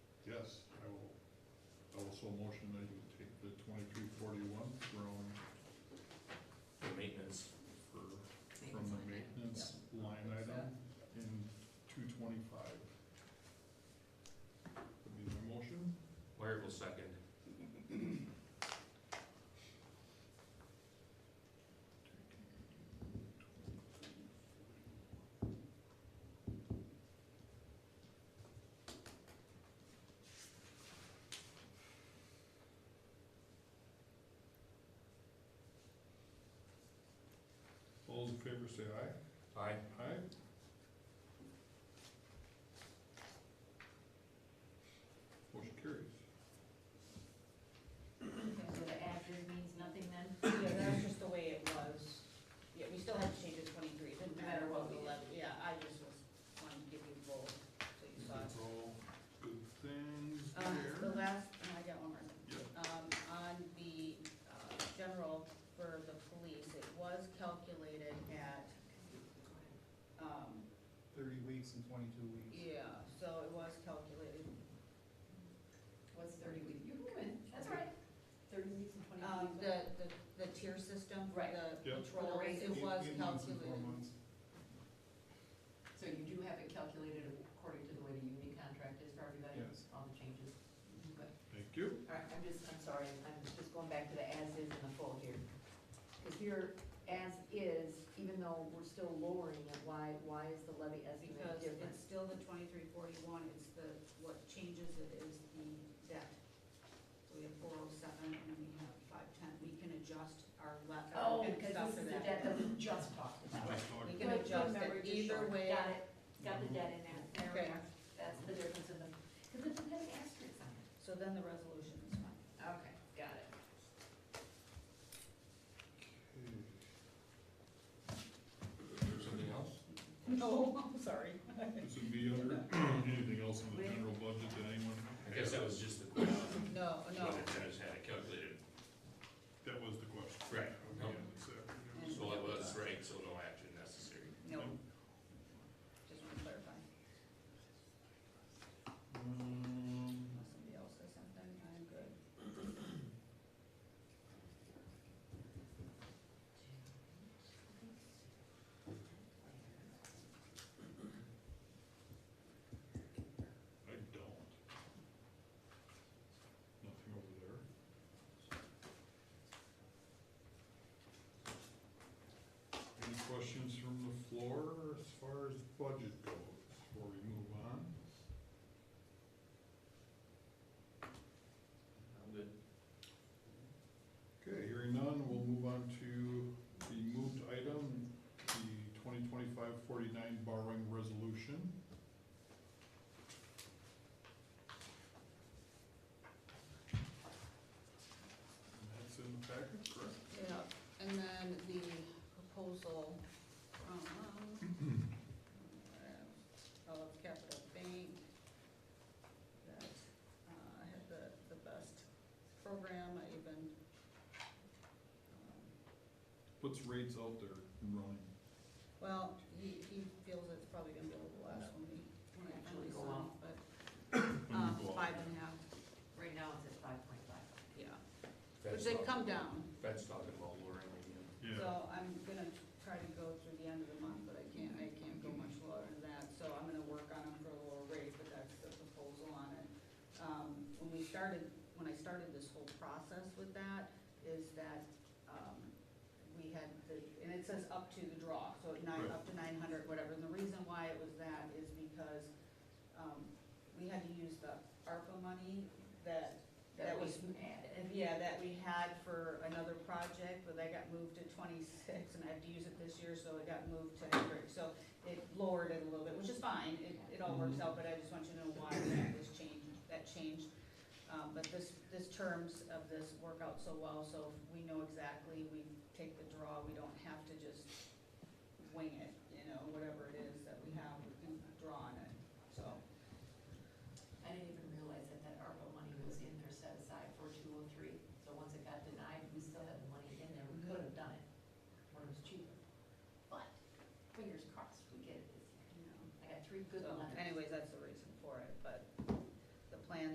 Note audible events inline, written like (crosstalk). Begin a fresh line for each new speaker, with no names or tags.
so motion that you take the twenty-two forty-one from,
for maintenance.
for, from the maintenance line item in two twenty-five. Would be my motion,
Wyatt will second.
all those in favor say aye.
Aye.
Aye. Motion carries.
So the active means nothing then?
Yeah, that's just the way it was. Yeah, we still had to change it to twenty-three, it didn't matter what we left, yeah, I just was wanting to give you both, so you saw it.
That's all good things
Um, the
there.
last, and I got one more.
Yep.
Um, on the, uh, general for the police, it was calculated at, um,
thirty weeks and twenty-two weeks.
yeah, so it was calculated,
What's thirty weeks? You can win, that's all right. Thirty weeks and twenty
um,
weeks.
the, the, the tier system for
Right.
the
Yep.
For the
patrols,
raises.
it
Eight-
was
eight months and four
calculated.
months.
So you do have it calculated according to the way the union contract is for everybody?
Yes.
All the changes? Okay.
Thank you.
All right, I'm just, I'm sorry, I'm just going back to the as is and the full here. Because here, as is, even though we're still lowering it, why, why is the levy estimate
Because
different?
it's still the twenty-three forty-one, it's the, what changes it is the debt. So we have four oh seven and we have five ten, we can adjust our left,
Oh,
our
because this
stuff
is
for
the
that.
debt that we just talked about.
Let's talk-
We can
Good,
adjust
remember,
it
you're
either
short.
way.
Got it, got the debt in there, there we
Okay.
are. That's the difference in the, because it has asterisks on it.
So then the resolution is fine.
(laughs) Okay, got it.
Something else?
No, I'm sorry.
This would be under anything else in the general budget that anyone.
I guess that was just the question.
No, no.
What it says, had it calculated.
That was the question.
Right.
Okay, this afternoon.
And-
So it was right, so no action necessary.
No. Just want to clarify.
Um,
Unless somebody else says something, I'm good.
I don't. Nothing over there. Any questions from the floor as far as budget goes before we move on?
I'm good.
Okay, hearing none, we'll move on to the moved item, the 2025-49 borrowing resolution. And that's in the packet, correct?
Yeah, and then the proposal from, um, Olive Capital Bank that, uh, had the, the best program, I even, um,
What's rates out there and running?
well, he, he feels it's probably gonna be the last one we, when I finally
Go
saw,
up. Mm-hmm.
but,
When
um,
you go out
five
there?
and a half,
Right now it's at five point five.
yeah,
Fed's
which they've
talking,
come down.
Fed's talking about lowering again.
Yeah,
So I'm gonna try to go through the end of the month, but I can't, I can't go much lower than that, so I'm gonna work on them for a lower rate, but that's the proposal on it. Um, when we started, when I started this whole process with that, is that, um, we had the, and it says up to the draw, so at nine,
Right.
up to nine hundred, whatever, and the reason why it was that is because, um, we had to use the ARPA money that That was-
we added.
and yeah, that we had for another project, but that got moved to twenty-six, and I have to use it this year, so it got moved to Hendrick. So it lowered it a little bit, which is fine, it, it all works out, but I just want you to know why that was changed, that changed. Um, but this, this terms of this work out so well, so we know exactly, we take the draw, we don't have to just wing it, you know, whatever it is that we have, we can draw on it, so.
I didn't even realize that that ARPA money was in there set aside for two oh three. So once it got denied, we still had the money in there. We could have done it when it was cheaper. But fingers crossed, we get it this year.
you know.
I got three good
So
letters.
anyways, that's the